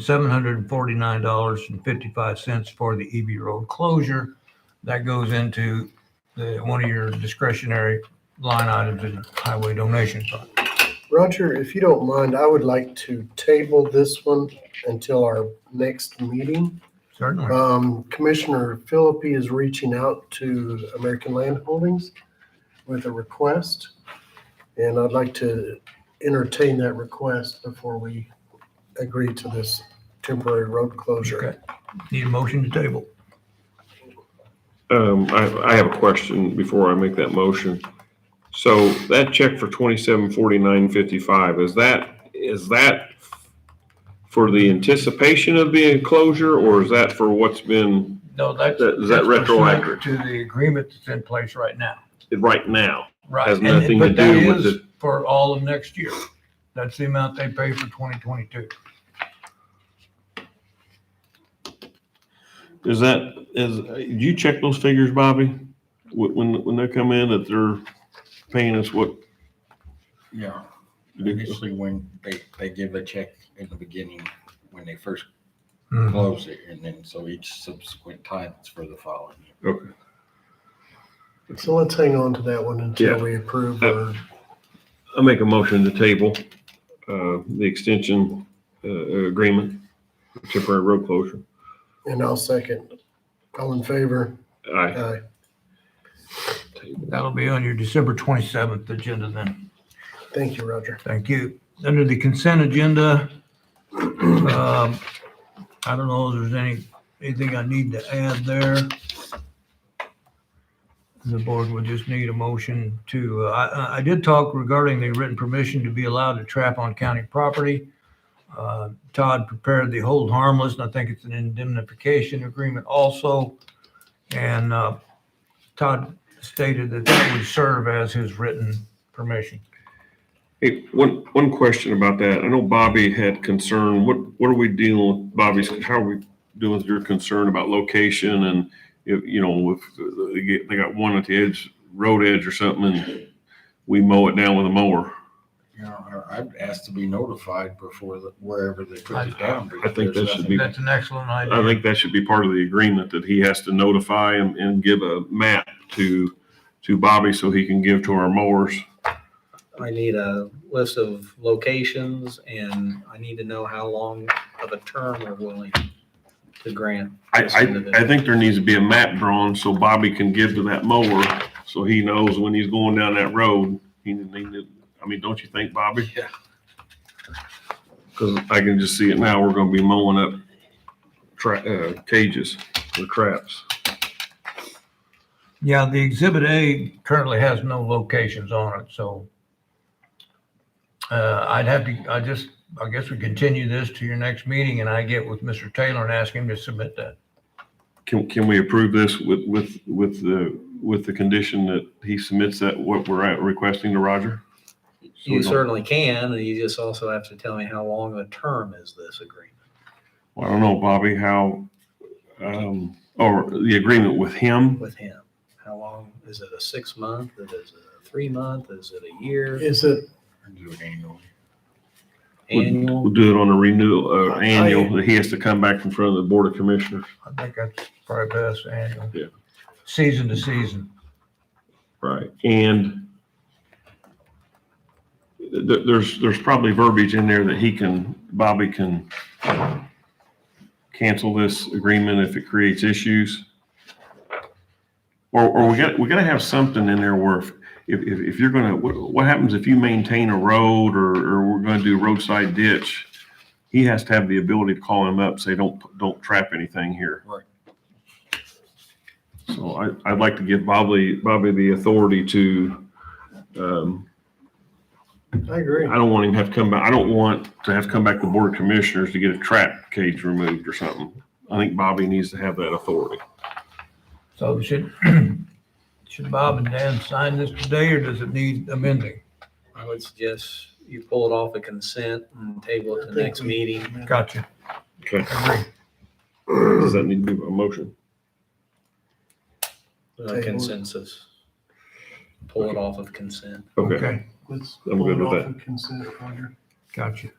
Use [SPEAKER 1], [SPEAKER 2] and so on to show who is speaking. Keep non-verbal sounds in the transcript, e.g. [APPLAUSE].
[SPEAKER 1] seven hundred and forty-nine dollars and fifty-five cents for the EB Road closure. That goes into the, one of your discretionary line items in the highway donation fund.
[SPEAKER 2] Roger, if you don't mind, I would like to table this one until our next meeting.
[SPEAKER 1] Certainly.
[SPEAKER 2] Um, Commissioner Philippi is reaching out to American Land Holdings with a request. And I'd like to entertain that request before we agree to this temporary road closure.
[SPEAKER 1] Okay. Need a motion to table.
[SPEAKER 3] Um, I, I have a question before I make that motion. So that check for twenty-seven forty-nine fifty-five, is that, is that for the anticipation of the enclosure or is that for what's been
[SPEAKER 1] No, that's.
[SPEAKER 3] That- is that
[SPEAKER 1] that's pursuant
[SPEAKER 3] retroactive?
[SPEAKER 1] To the agreement that's in place right now.
[SPEAKER 3] right now?
[SPEAKER 1] Right.
[SPEAKER 3] Has
[SPEAKER 1] And it-
[SPEAKER 3] nothing
[SPEAKER 1] but
[SPEAKER 3] to
[SPEAKER 1] that
[SPEAKER 3] do with
[SPEAKER 1] is For all of next year. That's the amount they pay for twenty twenty-two.
[SPEAKER 3] Is that, is, do you check those figures, Bobby? Wh- When, when they come in that they're paying us what?
[SPEAKER 4] Yeah, initially when they, they give a check in the beginning, when they first
[SPEAKER 1] Hmm.
[SPEAKER 4] close it, and then so each subsequent time it's for the following year.
[SPEAKER 3] Okay.
[SPEAKER 2] So let's hang on to that one until
[SPEAKER 3] Yeah.
[SPEAKER 2] we approve or
[SPEAKER 3] I make a motion to table, uh, the extension, uh, agreement, temporary road closure.
[SPEAKER 2] and I'll second. All in favor?
[SPEAKER 3] Aye.
[SPEAKER 2] Aye.
[SPEAKER 1] That'll be on your December twenty-seventh agenda then.
[SPEAKER 2] Thank you, Roger.
[SPEAKER 1] Thank you. Under the consent agenda, um, I don't know if there's any, anything I need to add there. The board would just need a motion to, uh, I, I- I did talk regarding the written permission to be allowed to trap on county property. Uh, Todd prepared the hold harmless, and I think it's an indemnification agreement also. And uh, Todd stated that that would serve as his written permission.
[SPEAKER 3] Hey, one, one question about that. I know Bobby had concern. What, what are we dealing with Bobby's, how are we dealing with your concern about location and if, you know, if they get, they got one at the edge, road edge or something and we mow it down with a mower?
[SPEAKER 4] You know, I- I'd ask to be notified before the, wherever they
[SPEAKER 1] I-
[SPEAKER 4] put it down.
[SPEAKER 3] I think that should be-
[SPEAKER 1] That's an excellent idea.
[SPEAKER 3] I think that should be part of the agreement that he has to notify and, and give a map to, to Bobby so he can give to our mowers.
[SPEAKER 5] I need a list of locations and I need to know how long of a term we're willing to grant.
[SPEAKER 3] I,
[SPEAKER 5] this
[SPEAKER 3] I, I
[SPEAKER 5] individual.
[SPEAKER 3] think there needs to be a map drawn so Bobby can give to that mower, so he knows when he's going down that road. He, he, I mean, don't you think, Bobby?
[SPEAKER 4] Yeah.
[SPEAKER 3] Cause I can just see it now, we're gonna be mowing up tra- uh, cages or traps.
[SPEAKER 1] Yeah, the Exhibit A currently has no locations on it, so uh, I'd have to, I just, I guess we continue this to your next meeting and I get with Mr. Taylor and ask him to submit that.
[SPEAKER 3] Can, can we approve this with, with, with the, with the condition that he submits that, what we're at requesting to Roger? So we
[SPEAKER 5] You
[SPEAKER 3] don't-
[SPEAKER 5] certainly can, and you just also have to tell me how long a term is this agreement.
[SPEAKER 3] Well, I don't know, Bobby, how, um, or the agreement with him?
[SPEAKER 5] with him? How long, is it a six month, is it a three month, is it a year,
[SPEAKER 2] Is it
[SPEAKER 4] Do it annually.
[SPEAKER 3] We'll
[SPEAKER 5] annual?
[SPEAKER 3] do it on a renewal, uh,
[SPEAKER 2] I-
[SPEAKER 3] annual, that he has to come back in front of the Board of Commissioners.
[SPEAKER 1] I think that's probably best annual.
[SPEAKER 3] Yeah.
[SPEAKER 1] Season to season.
[SPEAKER 3] Right. And th- there's, there's probably verbiage in there that he can, Bobby can cancel this agreement if it creates issues. Or, or we got, we gotta have something in there where if, if, if you're gonna, what, what happens if you maintain a road or, or we're gonna do roadside ditch? He has to have the ability to call him up, say, don't, don't trap anything here.
[SPEAKER 4] Right.
[SPEAKER 3] So I, I'd like to give Bobby, Bobby the authority to, um,
[SPEAKER 2] I agree.
[SPEAKER 3] I don't want him to have to come back, I don't want to have to come back to the Board of Commissioners to get a trap cage removed or something. I think Bobby needs to have that authority.
[SPEAKER 1] So should, [CLEARS THROAT] should Bob and Dan sign this today or does it need amending?
[SPEAKER 5] I would suggest you pull it off a consent and table it to the next meeting.
[SPEAKER 1] Gotcha.
[SPEAKER 3] Okay.
[SPEAKER 1] Agree.
[SPEAKER 3] Does that need to be a motion?
[SPEAKER 5] A Consensus. Pull it off of consent.
[SPEAKER 3] Okay,
[SPEAKER 2] Let's
[SPEAKER 3] I'm
[SPEAKER 2] pull it
[SPEAKER 3] good with
[SPEAKER 2] off
[SPEAKER 3] that.
[SPEAKER 2] and consent, Roger.
[SPEAKER 1] Gotcha.